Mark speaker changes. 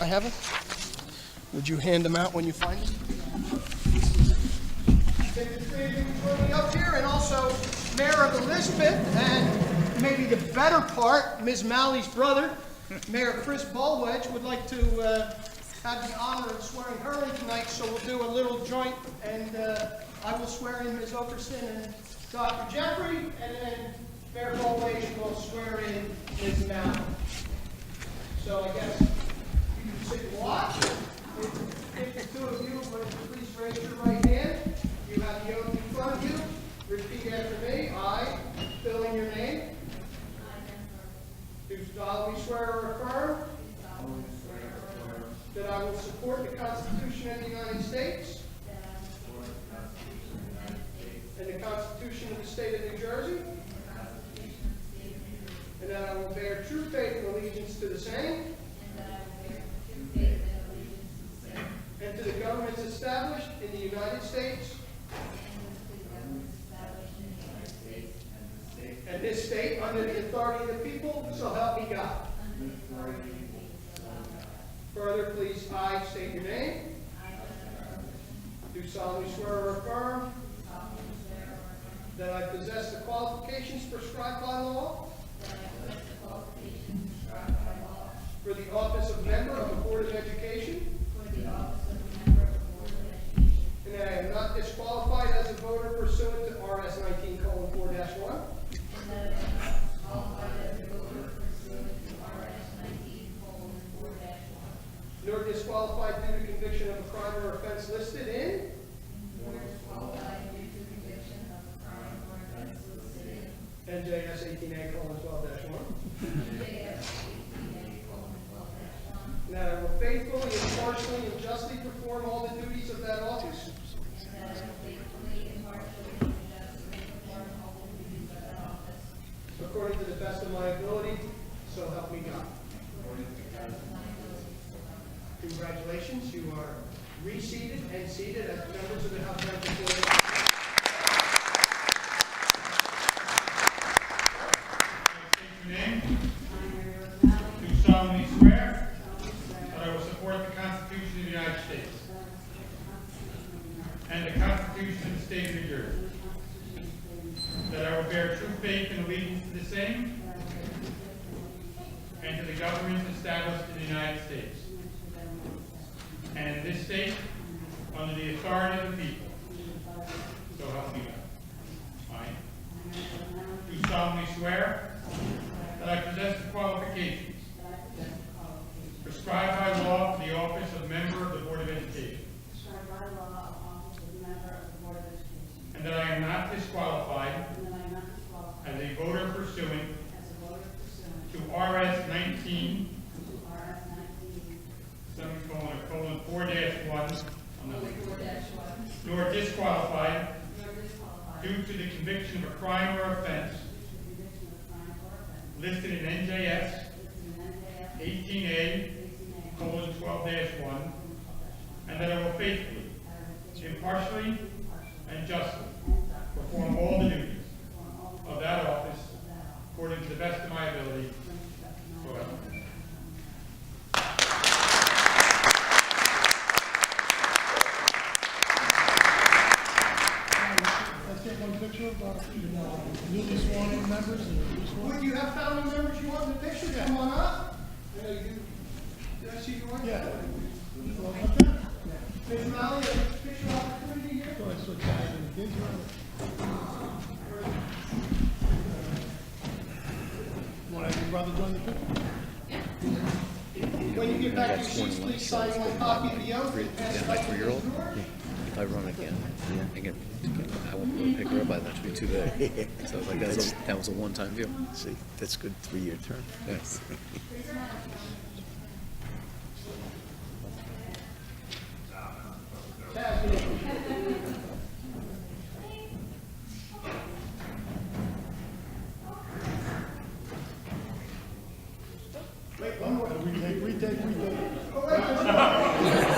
Speaker 1: I have them. Would you hand them out when you find them? Take the three of you join me up here, and also Mayor of Elizabeth, and maybe the better part, Ms. Malley's brother, Mayor Chris Bulwedge, would like to uh, have the honor of swearing her in tonight, so we'll do a little joint, and uh, I will swear in Ms. Okerson and Dr. Jeffrey, and then Mayor Bulwedge will swear in Ms. Malley. So I guess you can sit and watch. If if the two of you would please raise your right hand. You have the oath in front of you. Repeat after me. I, fill in your name. Do solemnly swear or affirm. That I will support the Constitution of the United States. And the Constitution of the State of New Jersey. And that I will bear true faith and allegiance to the same. And to the governments established in the United States. And this state under the authority of the people, so help me God. Further, please, I state your name. Do solemnly swear or affirm. That I possess the qualifications prescribed by law. For the office of member of the Board of Education. And that I am not disqualified as a voter pursuant to RS nineteen colon four dash one. Nor disqualified due to conviction of a crime or offense listed in. NJS eighteen A colon twelve dash one. And that I will faithfully, impartially, and justly perform all the duties of that office. According to the best of my ability, so help me God. Congratulations, you are reseated and seated as members of the House of Representatives.
Speaker 2: State your name. Do solemnly swear that I will support the Constitution of the United States and the Constitution of the State of New Jersey, that I will bear true faith and allegiance to the same and to the governments established in the United States and in this state under the authority of the people. So help me God. I do solemnly swear that I possess the qualifications prescribed by law for the office of member of the Board of Education,
Speaker 3: Prescribed by law, office of member of the Board of Education.
Speaker 2: and that I am not disqualified
Speaker 3: And that I am not disqualified
Speaker 2: as a voter pursuant
Speaker 3: as a voter pursuant
Speaker 2: to RS nineteen,
Speaker 3: to RS nineteen
Speaker 2: semicolon, colon, four dash one, on the link,
Speaker 3: four dash one.
Speaker 2: nor disqualified
Speaker 3: Nor disqualified
Speaker 2: due to the conviction of a crime or offense
Speaker 3: due to conviction of crime or offense.
Speaker 2: listed in NJS
Speaker 3: Listed in NJS
Speaker 2: eighteen A,
Speaker 3: eighteen A.
Speaker 2: colon, twelve dash one, and that I will faithfully, impartially, and justly perform all the duties of that office according to the best of my ability. So help me God.
Speaker 4: Let's take one picture of uh, our newly sworn in members and newly sworn.
Speaker 1: Would you have family members you want in the picture? Come on up. There you go. Did I see you on?
Speaker 4: Yeah.
Speaker 1: Ms. Malley, a picture opportunity here?
Speaker 4: Go ahead, switch sides and begin to- Want to have your brother join the picture?
Speaker 1: When you get back to your seats, please sign one copy of the oath. and pass it
Speaker 5: my
Speaker 1: up to Ms.
Speaker 5: three-year-old.
Speaker 1: George.
Speaker 5: I run again. Again, I won't be able to pick her up. I thought she'd be too big. So I was like, that's a, that was a one-time deal.
Speaker 6: See, that's good three-year term.
Speaker 5: Yes.
Speaker 4: Wait, one more. Retake, retake, retake.
Speaker 1: Oh, wait, there's more.